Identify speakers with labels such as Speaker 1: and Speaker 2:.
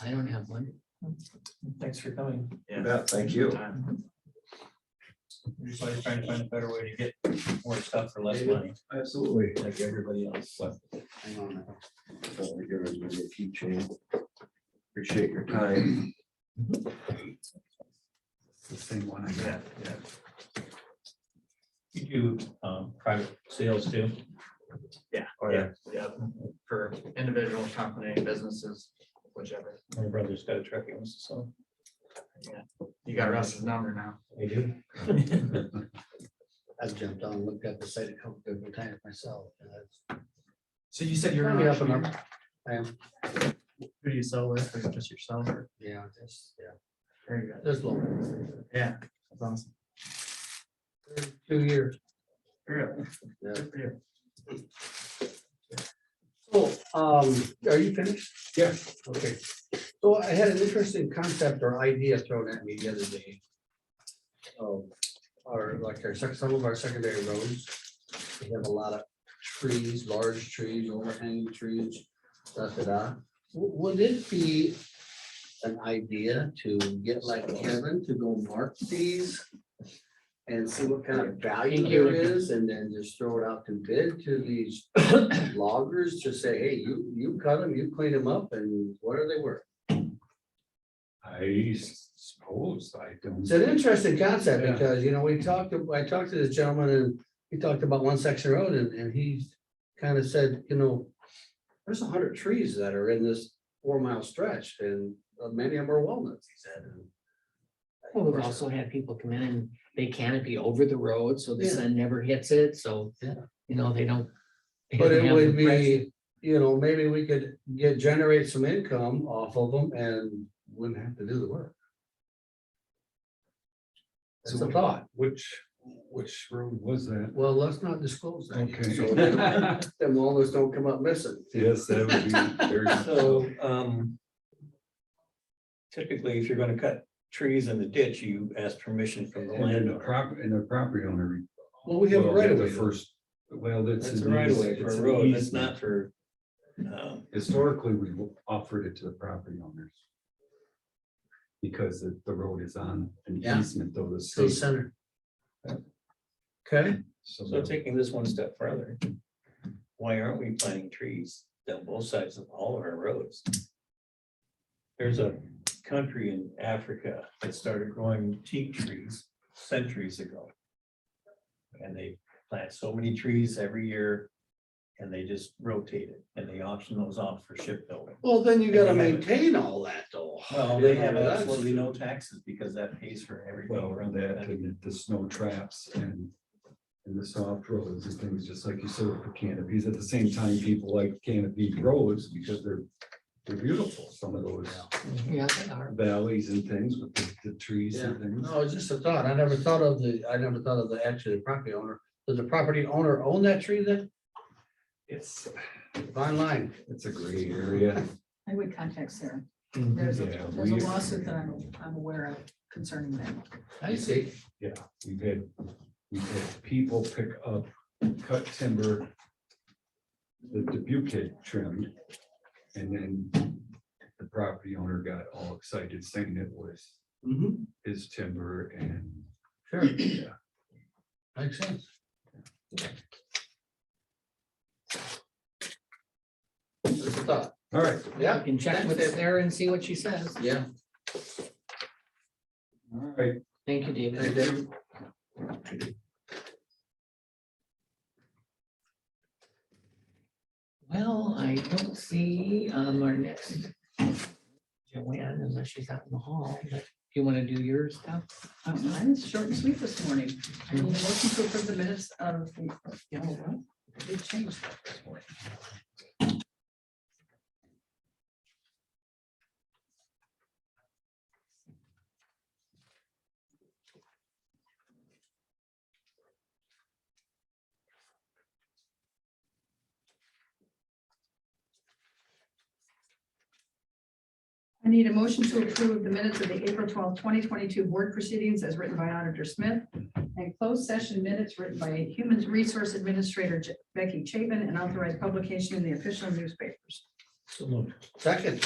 Speaker 1: I don't have one.
Speaker 2: Thanks for coming.
Speaker 3: Yeah, thank you.
Speaker 2: We're Just always trying to find a better way to get more stuff for less money,
Speaker 3: Absolutely.
Speaker 2: like everybody else. So,
Speaker 4: Hang on. Over here is my keychain. Appreciate your time. The same one I got.
Speaker 2: You do um, private sales too?
Speaker 1: Yeah,
Speaker 2: Or-
Speaker 1: yeah, yeah, for individual company, businesses, whichever.
Speaker 2: My brother's got a trucking, business, so
Speaker 1: You got Russ's number now.
Speaker 2: we do.
Speaker 5: I've jumped on, looked at the site a couple different times myself. and that's-
Speaker 1: So you said
Speaker 5: Probably up and up. I am,
Speaker 1: Who do you sell with? Is it just yourself or?
Speaker 5: yeah, just, yeah,
Speaker 1: Very good.
Speaker 5: just long.
Speaker 1: Yeah. That's awesome.
Speaker 5: Two years.
Speaker 1: Very
Speaker 5: Yeah.
Speaker 1: good. Good for you.
Speaker 5: So, um, are you finished?
Speaker 3: Yeah.
Speaker 5: Okay, so I had an interesting concept or idea thrown at me the other day. Um, Our, like our, sec- some of our secondary roads, we have a lot of trees, large trees, overhanging trees, da, da, da. W- Would it be an idea to get like Kevin to go mark these? And see what kind of value there is and then just throw it out to bid to these loggers to say, hey, you, you cut them, you clean them up, and what are they worth?
Speaker 4: I suppose I don't.
Speaker 5: It's an interesting concept
Speaker 4: Yeah.
Speaker 5: because, you know, we talked, to- I talked to this gentleman and he talked about one section road and, and he kind of said, you know, there's a hundred trees that are in this four mile stretch and uh, many of them are walnuts, he said. and-
Speaker 1: Well, we've also had people come in and they canopy over the road, so the
Speaker 5: Yeah.
Speaker 1: sun never hits it, so,
Speaker 5: Yeah.
Speaker 1: you know, they don't. they
Speaker 5: But it
Speaker 1: don't have
Speaker 5: would
Speaker 1: the pressure.
Speaker 5: be, you know, maybe we could get, generate some income off of them and wouldn't have to do the work. It's a thought.
Speaker 4: Which, which road was that?
Speaker 5: Well, let's not disclose that. yet,
Speaker 4: Okay.
Speaker 5: so they don't- Them walnuts don't come up missing.
Speaker 4: Yes, that would be very.
Speaker 2: So, um. Typically, if you're gonna cut trees in the ditch, you ask permission from the
Speaker 4: And the
Speaker 2: landowner.
Speaker 4: prop, and the property owner.
Speaker 5: Well, we have a
Speaker 4: will
Speaker 5: right
Speaker 4: get
Speaker 5: of
Speaker 4: the
Speaker 5: way.
Speaker 4: First, well, that's.
Speaker 2: That's a
Speaker 4: an
Speaker 2: right of
Speaker 4: eas-
Speaker 2: way for
Speaker 4: it's
Speaker 2: a
Speaker 4: an
Speaker 2: road, that's
Speaker 4: easement.
Speaker 2: not for. um,
Speaker 4: Historically, we offered it to the property owners. Because the, the road is on an
Speaker 5: Yeah.
Speaker 4: easement though, the
Speaker 5: City
Speaker 4: state.
Speaker 5: center. Okay,
Speaker 2: So taking this one step further, why aren't we planting trees down both sides of all of our roads? There's a country in Africa that started growing teak trees centuries ago. And they plant so many trees every year and they just rotate it and they auction those off for shipbuilding.
Speaker 5: well, then you gotta
Speaker 2: They have it.
Speaker 5: maintain all that though.
Speaker 2: Well, they have
Speaker 5: Yeah, that's-
Speaker 2: absolutely no taxes because that pays for every go
Speaker 4: Well,
Speaker 2: around
Speaker 4: around
Speaker 2: that.
Speaker 4: that, and the snow traps and, and the soft roads and things, just like you said with the canopies. At the same time, people like canopy roads because they're, they're beautiful, some of those
Speaker 1: Yeah, they are.
Speaker 4: valleys and things with the, the trees and things.
Speaker 5: No, it's just a thought. I never thought of the, I never thought of the actual property owner. Does the property owner own that tree then?
Speaker 4: It's,
Speaker 5: Fine line.
Speaker 4: it's a great area.
Speaker 6: I would contact Sarah.
Speaker 1: Mhm.
Speaker 6: There's,
Speaker 4: Yeah,
Speaker 6: there's a
Speaker 4: we-
Speaker 6: lawsuit that I'm, I'm aware of concerning that.
Speaker 5: I see.
Speaker 4: Yeah, we've had, we've had people pick up cut timber. The Dubuque had trimmed. And then the property owner got all excited saying it was
Speaker 5: Mhm.
Speaker 4: his timber and.
Speaker 5: Sure,
Speaker 4: yeah,
Speaker 5: makes sense. Just a thought.
Speaker 4: All right,
Speaker 5: Yeah,
Speaker 1: You can check with Sarah and see what she says.
Speaker 5: yeah.
Speaker 4: all right.
Speaker 1: Thank you, David.
Speaker 5: Thank you.
Speaker 1: Well, I don't see um our next. Joanne, unless she's out in the hall, but you want to do your stuff?
Speaker 6: Uh, Mine is short and sweet this morning. I need a motion to approve the minutes of the, you know, what? Big change this morning. I need a motion to approve the minutes of the April twelfth, twenty twenty-two board proceedings as written by Auditor Smith and closed session minutes written by Human Resource Administrator Je- Becky Chapin and authorized publication in the official newspapers.
Speaker 2: So moved.
Speaker 5: Second.